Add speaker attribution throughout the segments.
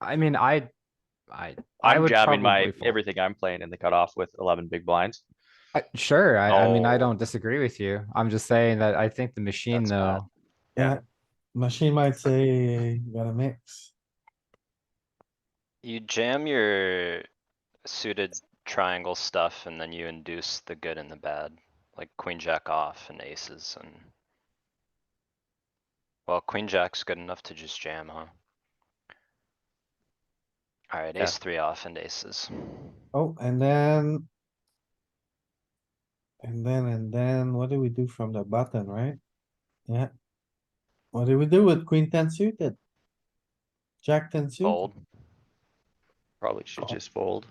Speaker 1: I mean, I, I, I
Speaker 2: I'm
Speaker 1: would
Speaker 2: jabbing my,
Speaker 1: probably fold.
Speaker 2: everything I'm playing in the cutoff with eleven big blinds.
Speaker 1: I- sure. I, I mean, I
Speaker 2: Oh.
Speaker 1: don't disagree with you. I'm just saying that I think the machine
Speaker 2: That's bad.
Speaker 1: though,
Speaker 2: Yeah.
Speaker 3: Yeah, machine might say you gotta mix.
Speaker 4: You jam your suited triangle stuff and then you induce the good and the bad, like queen jack off and aces and. Well, queen jack's good enough to just jam, huh? Alright,
Speaker 2: Yeah.
Speaker 4: ace three off and aces.
Speaker 3: Oh, and then. And then, and then what do we do from the button, right? Yeah. What do we do with queen ten suited? Jack ten suited?
Speaker 4: Fold.
Speaker 2: Probably
Speaker 1: Oh.
Speaker 2: should just fold.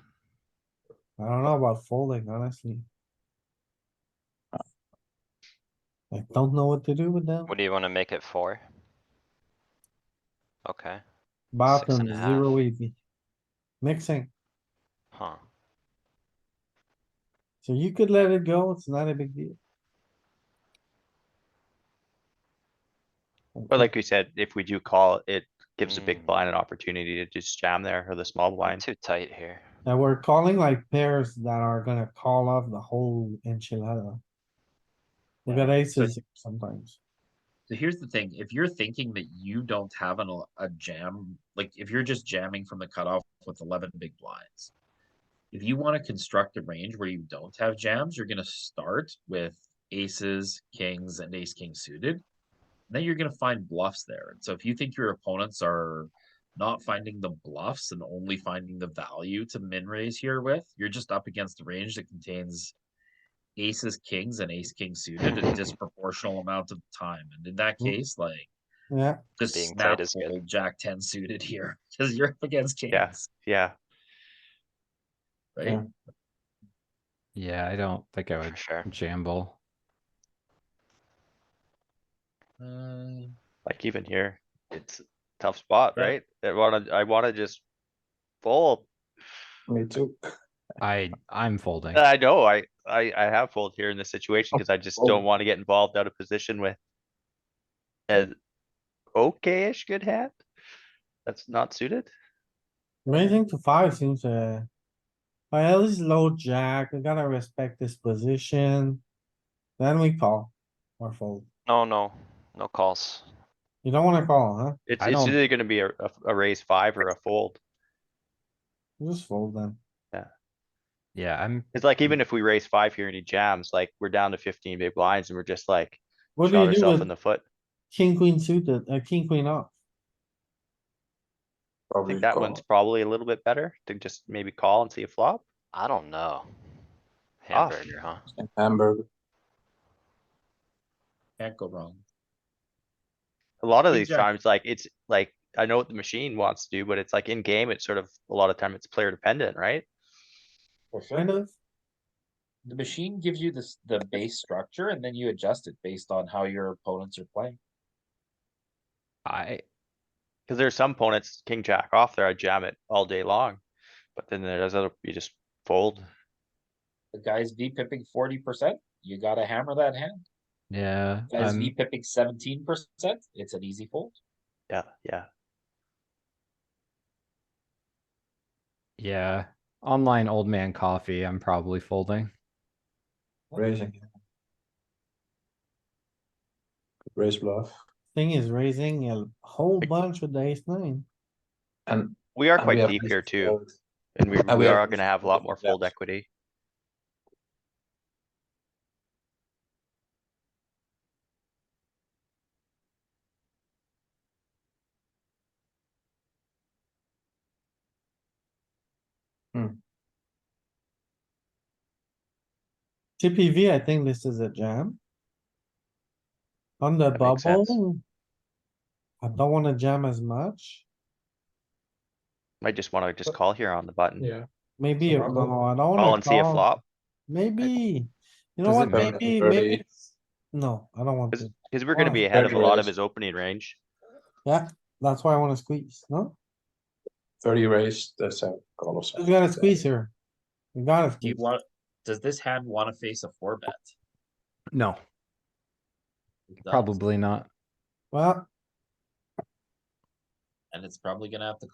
Speaker 3: I don't know about folding, honestly. I don't know what to do with them.
Speaker 4: What do you wanna make it for? Okay,
Speaker 3: Bottom
Speaker 4: and a half.
Speaker 3: zero EV. Mixing,
Speaker 4: huh.
Speaker 3: so you could let it go, it's not a big deal.
Speaker 2: But like we said, if we do call, it gives the
Speaker 4: Mm.
Speaker 2: big blind an opportunity to just jam there or the small
Speaker 4: We're
Speaker 2: blind.
Speaker 4: too tight here.
Speaker 3: Now we're calling like pairs that are gonna call off the whole enchilada. We got aces sometimes.
Speaker 5: So here's the thing, if you're thinking that you don't have an, el- a jam, like if you're just jamming from the cutoff with eleven big blinds. If you wanna construct a range where you don't have jams, you're gonna start with aces, kings, and ace king suited. Then you're gonna find bluffs there, and so if you think your opponents are not finding the bluffs and only finding the value to min raise here with, you're just up against a range that contains aces, kings, and ace king suited a disproportional amount of time. And in that
Speaker 3: Mm.
Speaker 5: case, like
Speaker 3: Yeah,
Speaker 5: just
Speaker 4: Hmm. Being tight
Speaker 5: snap
Speaker 4: is good.
Speaker 5: fold jack ten suited here because you're up against kings,
Speaker 2: Yeah. Yeah,
Speaker 5: right?
Speaker 3: Yeah.
Speaker 1: yeah, I don't think I
Speaker 4: For
Speaker 1: would
Speaker 4: sure.
Speaker 1: jamble.
Speaker 5: Uh,
Speaker 2: like even here, it's a tough spot, right? I wanna, I wanna just fold.
Speaker 3: me too.
Speaker 1: I, I'm folding.
Speaker 2: I know, I, I, I have fold here in this
Speaker 1: Oh,
Speaker 2: situation because I just don't
Speaker 3: fold.
Speaker 2: wanna get involved out of position with an okay-ish good hand that's not suited.
Speaker 3: Raising to five seems uh Well, it's low jack, we gotta respect this position. Then we call or fold.
Speaker 4: No, no, no calls.
Speaker 3: You don't wanna call, huh?
Speaker 2: It's,
Speaker 1: I
Speaker 2: it's
Speaker 1: don't-
Speaker 2: either gonna be a, a, a raise five or a fold.
Speaker 3: Just fold then.
Speaker 1: Yeah, I'm,
Speaker 2: It's like even if we raise five here and he jams, like we're down to fifteen big blinds and we're just like
Speaker 3: What do
Speaker 2: shot
Speaker 3: you do
Speaker 2: ourselves in
Speaker 3: with
Speaker 2: the foot.
Speaker 3: king, queen suited, uh, king, queen off?
Speaker 2: I think that one's probably a little bit better to just maybe call and see a flop.
Speaker 4: I don't know.
Speaker 2: Off.
Speaker 4: Hamburger, huh?
Speaker 6: Hamburger.
Speaker 5: can't go wrong.
Speaker 2: A lot of these
Speaker 5: Exactly.
Speaker 2: times, like it's like, I know what the machine wants to do, but it's like in game, it's sort of, a lot of time it's player dependent, right?
Speaker 3: Kind of.
Speaker 5: The machine gives you this the base structure, and then you adjust it based on how your opponents are playing.
Speaker 1: I,
Speaker 2: Cause there's some opponents, king jack off there, I jam it all day long. But then there's other, you just fold.
Speaker 5: The guy's v pipping forty percent. You gotta hammer that hand.
Speaker 1: yeah,
Speaker 5: Guys v
Speaker 1: I'm,
Speaker 5: pipping seventeen percent. It's an easy fold.
Speaker 2: Yeah, yeah.
Speaker 1: yeah. Online old man coffee, I'm probably folding.
Speaker 6: Raising. Raise bluff.
Speaker 3: Thing is raising a whole
Speaker 2: Like-
Speaker 3: bunch with the ace nine.
Speaker 6: And.
Speaker 2: We are
Speaker 6: and we
Speaker 2: quite
Speaker 6: have
Speaker 2: deep
Speaker 6: ace
Speaker 2: here
Speaker 6: to
Speaker 2: too,
Speaker 6: fold.
Speaker 2: and we,
Speaker 6: and we
Speaker 2: we
Speaker 6: have
Speaker 2: are
Speaker 6: ace
Speaker 2: gonna
Speaker 6: to
Speaker 2: have a
Speaker 6: fold
Speaker 2: lot
Speaker 6: with
Speaker 2: more
Speaker 6: jams.
Speaker 2: fold equity.
Speaker 3: Chippy V, I think this is a jam. On the
Speaker 2: That makes sense.
Speaker 3: bubble. I don't wanna jam as much.
Speaker 2: Might just wanna just call here on the button.
Speaker 6: Yeah.
Speaker 3: Maybe, a-
Speaker 6: Some rubble.
Speaker 3: no, I don't wanna.
Speaker 2: Call and see a
Speaker 3: call.
Speaker 2: flop.
Speaker 3: Maybe, you know
Speaker 1: Does
Speaker 3: what,
Speaker 1: it matter?
Speaker 3: maybe,
Speaker 6: Early.
Speaker 3: maybe, it's- no, I don't want
Speaker 2: Cause,
Speaker 3: to,
Speaker 2: 'cause we're gonna
Speaker 3: Why?
Speaker 2: be ahead of a lot of
Speaker 6: Regulars.
Speaker 2: his opening range.
Speaker 3: yeah, that's why I wanna squeeze, no?
Speaker 6: Thirty raise, that's a call of.
Speaker 3: We gotta squeeze here. We gotta
Speaker 5: Do you
Speaker 3: squeeze,
Speaker 5: want? Does this hand want to face a four bet?
Speaker 1: No,
Speaker 5: It does,
Speaker 1: probably not.
Speaker 3: well.
Speaker 5: And it's probably gonna have to